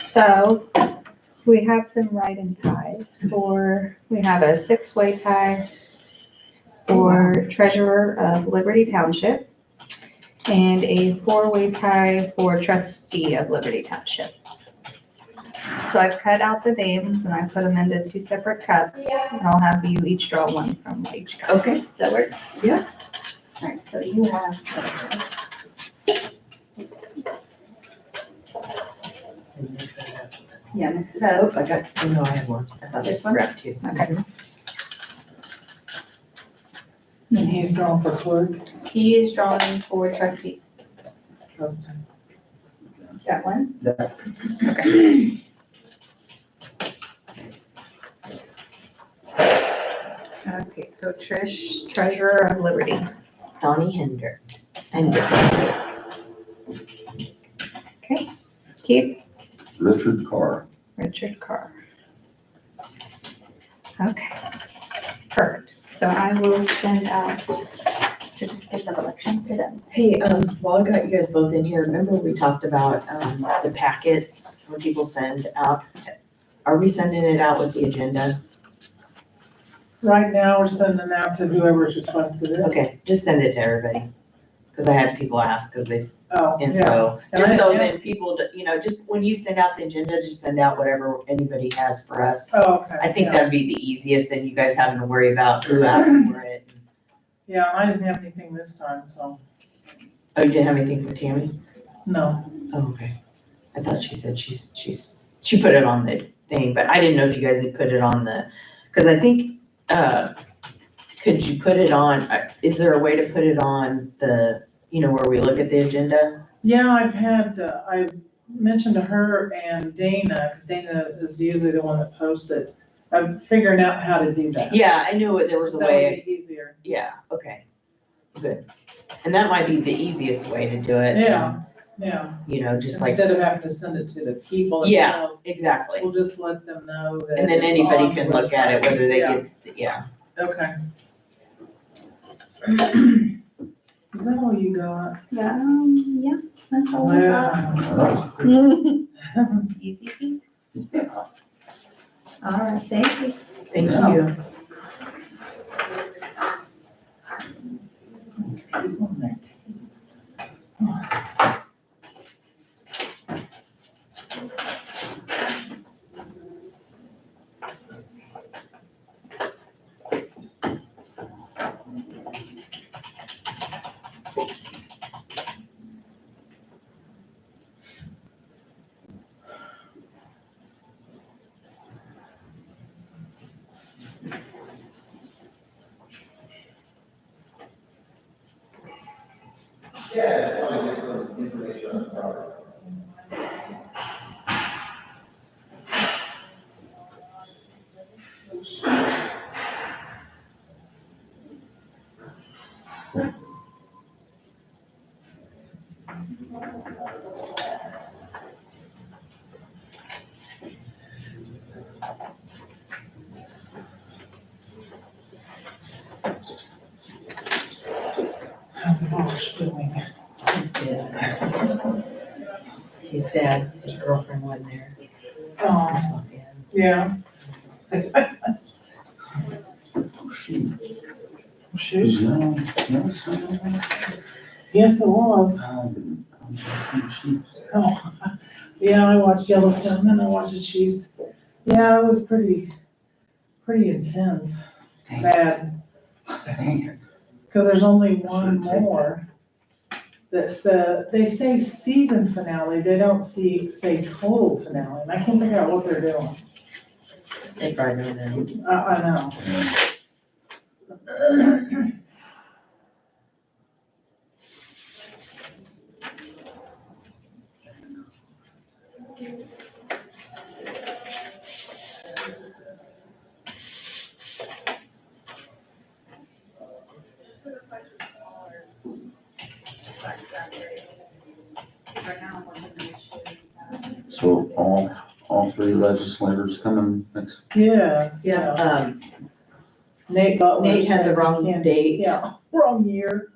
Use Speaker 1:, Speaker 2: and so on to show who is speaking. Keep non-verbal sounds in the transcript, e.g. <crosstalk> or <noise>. Speaker 1: So we have some writing ties for, we have a six-way tie for treasurer of Liberty Township and a four-way tie for trustee of Liberty Township. So I've cut out the names and I put them into two separate cups and I'll have you each draw one from each cup.
Speaker 2: Okay,
Speaker 1: Does that work?
Speaker 2: Yeah.
Speaker 1: All right, so Oh, you have. Yeah, mix it up.
Speaker 2: oh, I got, oh no, I have one. I thought
Speaker 1: This
Speaker 2: this
Speaker 1: one?
Speaker 2: one wrapped you.
Speaker 1: Okay.
Speaker 3: And he's drawn for clerk.
Speaker 1: He is drawing for trustee.
Speaker 2: Trust.
Speaker 1: That one?
Speaker 2: That.
Speaker 1: Okay. Okay, so Trish, treasurer of Liberty.
Speaker 2: Donnie Hinder. And
Speaker 1: Keith?
Speaker 4: Richard Carr.
Speaker 1: Richard Carr. Okay. Perfect. So I will send out certificates of election to them.
Speaker 2: Hey, um, while I got you guys both in here, remember we talked about, um, the packets when people send out? Are we sending it out with the agenda?
Speaker 3: Right now, we're sending out to whoever's requested it.
Speaker 2: Okay, just send it to everybody. Cause I had people ask, cause they, s-
Speaker 3: Oh,
Speaker 2: and
Speaker 3: yeah.
Speaker 2: so, just so
Speaker 3: Yeah.
Speaker 2: then people, d- you know, just when you send out the agenda, just send out whatever anybody has for us.
Speaker 3: Oh, okay.
Speaker 2: I think
Speaker 3: yeah.
Speaker 2: that'd be the easiest, then you guys having to worry about who
Speaker 3: Mm-hmm.
Speaker 2: asked for it.
Speaker 3: Yeah, I didn't have anything this time, so,
Speaker 2: Oh, you didn't have anything for Tammy?
Speaker 3: no.
Speaker 2: Oh, okay. I thought she said she's, she's, she put it on the thing, but I didn't know if you guys had put it on the, because I think, uh, could you put it on, uh, is there a way to put it on the, you know, where we look at the agenda?
Speaker 3: Yeah, I've had, uh, I mentioned to her and Dana, because Dana is usually the one that posts it. I'm figuring out how to do that.
Speaker 2: Yeah, I knew it- there was a
Speaker 3: That
Speaker 2: way,
Speaker 3: would be easier.
Speaker 2: yeah, okay. Good. And that might be the easiest way to do it.
Speaker 3: Yeah, yeah.
Speaker 2: You know, just like,
Speaker 3: Instead of having to send it to the people
Speaker 2: Yeah.
Speaker 3: themselves,
Speaker 2: exactly.
Speaker 3: we'll just let them know that.
Speaker 2: And then
Speaker 3: it's
Speaker 2: anybody
Speaker 3: on
Speaker 2: can
Speaker 3: the
Speaker 2: look at it,
Speaker 3: website.
Speaker 2: whether they
Speaker 3: Yeah,
Speaker 2: get, yeah.
Speaker 3: Okay. <clears throat> Is that all you got?
Speaker 1: Um, yeah, that's all I got.
Speaker 3: Wow.
Speaker 1: <laughs> Easy peasy. All right, thank you.
Speaker 2: Thank
Speaker 4: Yeah.
Speaker 2: you.
Speaker 3: How's Marsh doing?
Speaker 2: He's dead. He's sad, his girlfriend wasn't there.
Speaker 3: Oh, yeah. Sheesh. Yes, it was. Oh, yeah, I watched Yellowstone, then I watched the Chiefs. Yeah, it was pretty, pretty intense. Sad, because there's only one more. That's, uh, they say season finale, they don't see, say total finale, and I can't figure out what they're doing.
Speaker 2: They probably know them.
Speaker 3: I, I know. <clears throat>
Speaker 1: uh,
Speaker 4: So all, all three legislators coming next,
Speaker 3: Yes, yeah.
Speaker 2: Um,
Speaker 3: Nate Butler.
Speaker 2: Nate had the
Speaker 3: said
Speaker 2: wrong
Speaker 3: he can't-
Speaker 2: date.
Speaker 3: Yeah, wrong year.